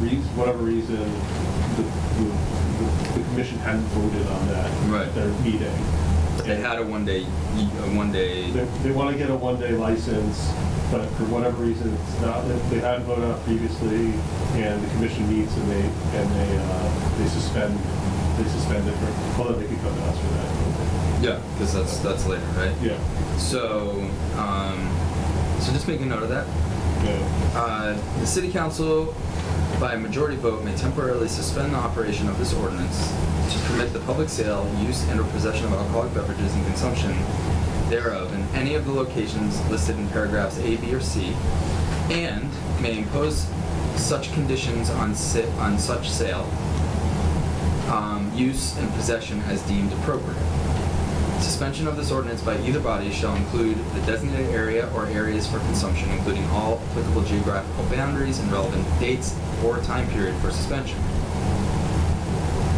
reason, whatever reason, the, the, the commission hadn't voted on that. Right. at Their meeting. They had a one-day, a They, one-day, they wanna get a one-day license, but for whatever reason, it's not, they- they hadn't voted on it previously, and the commission meets and they, and they, uh, they suspend, they suspend it for, although they could come to us for that. yeah, because that's, that's later, right? Yeah, So, um, so just make a note of that. yeah, Uh, the city council, by a majority vote, may temporarily suspend the operation of this ordinance to permit the public sale, use, and/or possession of alcoholic beverages and consumption thereof in any of the locations listed in paragraphs A, B, or C, and may impose such conditions on si- on such sale, um, use, and possession as deemed appropriate. Suspension of this ordinance by either body shall include the designated area or areas for consumption, including all applicable geographical boundaries and relevant dates or time period for suspension.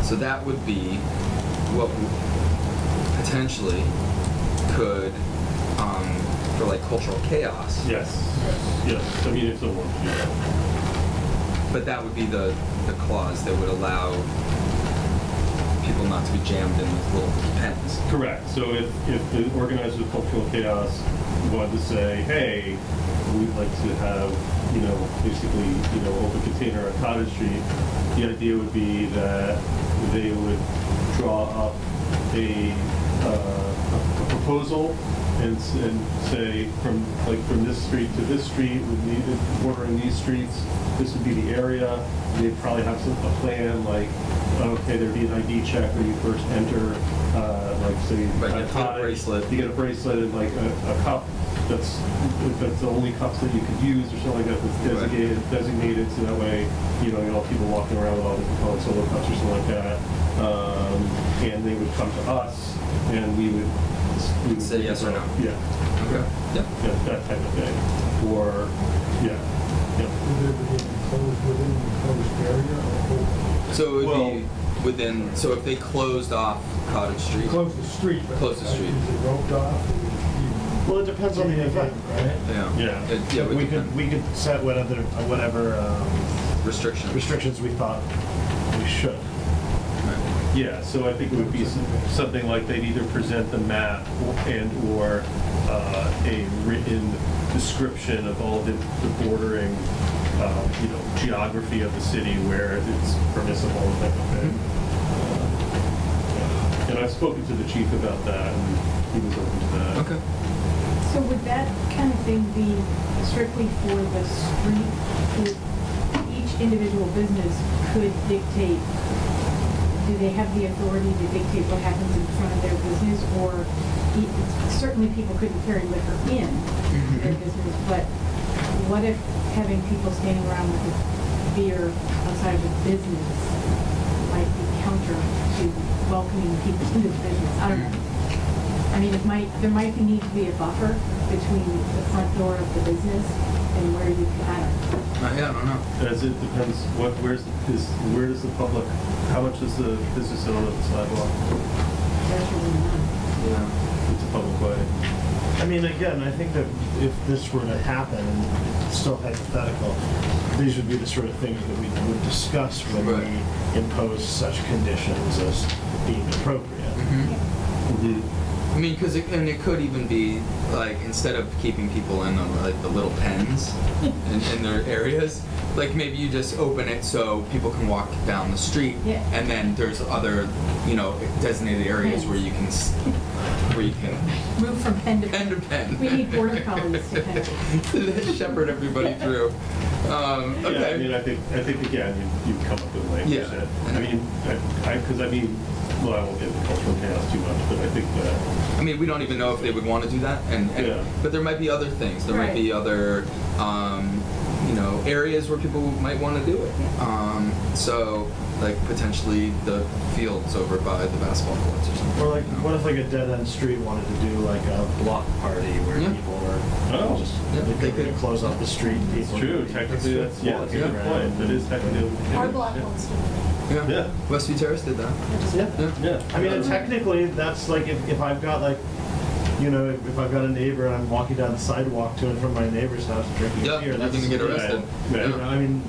So that would be what w- potentially could, um, for like cultural chaos. yes, yes, I mean, if someone, you know. But that would be the, the clause that would allow people not to be jammed in with little pens. Correct. So if, if the organizers of cultural chaos wanted to say, hey, we'd like to have, you know, basically, you know, open container on Cottage Street, the idea would be that they would draw up a, uh, a proposal and, s- and say, from, like, from this street to this street, would need, bordering these streets, this would be the area. They'd probably have some, a plan, like, okay, there'd be an ID check when you first enter, uh, like, say, Right, you a get a cottage, bracelet. You get a bracelet and like a, a cup that's, that's the only cups that you could use or something like that that's Right. designated, designated, so that way, you know, you don't have people walking around with all different colored solo cups or something like that. Um, and they would come to us and we would. we would- Say yes or no. Yeah, Okay. Yep. yeah, that type of thing. Or, yeah, yeah. Would it be enclosed within the enclosed area or open? So it would Well- be within. So if they closed off Cottage Street, Close the street. but Close the street. Is it roped off? Is it- Well, it depends on the event, right? yeah, Yeah. it, yeah, it would We depend. could, we could set whatever, whatever um, restrictions. restrictions we thought we should. Right. Yeah, so I think it would be some- something like they'd either present the map and/or uh, a written description of all the the bordering, uh, you know, geography of the city where it's permissible and that kind of thing. Uh, And I've spoken to the chief about that, and he was open to that. Okay. So would that kind of thing be strictly for the street? Would Each individual business could dictate, do they have the authority to dictate what happens in front of their business? Or e- certainly people couldn't carry liquor in their Mhm. business, but what if having people standing around with a beer outside of a business might be counter to welcoming people into the business? I don't know. I mean, it might, there might be need to be a buffer between the front door of the business and where you can, I don't know. Uh, yeah, I don't know. As it depends, what, where's, is, where does the public, how much does the business own of the sidewalk? There's really none. Yeah. It's a public way. I mean, again, I think that if this were to happen, and it's still hypothetical, these would be the sort of things that we would discuss when Right. we impose such conditions as being appropriate. Mhm. I mean, because it, and it could even be like instead of keeping people in the, like the little pens in, in their areas, like maybe you just open it so people can walk down the street, Yeah. and then there's other you know designated areas where you can s- where you can Move from pen to Pen to pen. We need border collies to pen. shepherd everybody through. Um, Yeah, I mean, okay. I think, I think again, you, you come up with Yeah. language that, I mean, I, I, cause I mean, well, I won't get into cultural chaos too much, but I think that, I mean, we don't even know if they would want to do that, and, and Yeah. but there might be other things. There might Right. be other, um, you know, areas where people might want to do it. Um, so, like potentially the fields over by the basketball courts or something. Or like, you know? what if like a dead-end street wanted to do like a block party where Yeah. people were, Oh. just, Yeah, they they could- could close off the street. it's people true, could be technically, that's, yeah, that's a good walking around. point, that is technically. Our block wants to. Yeah. Yeah. Westview Terrace did that. Yeah. Yeah. Yeah. I mean, and technically, that's like if, if I've got like, you know, if, if I've got a neighbor and I'm walking down the sidewalk to and from my neighbor's house drinking Yeah, beer, you're that's gonna get yeah, arrested. yeah. You know, I mean,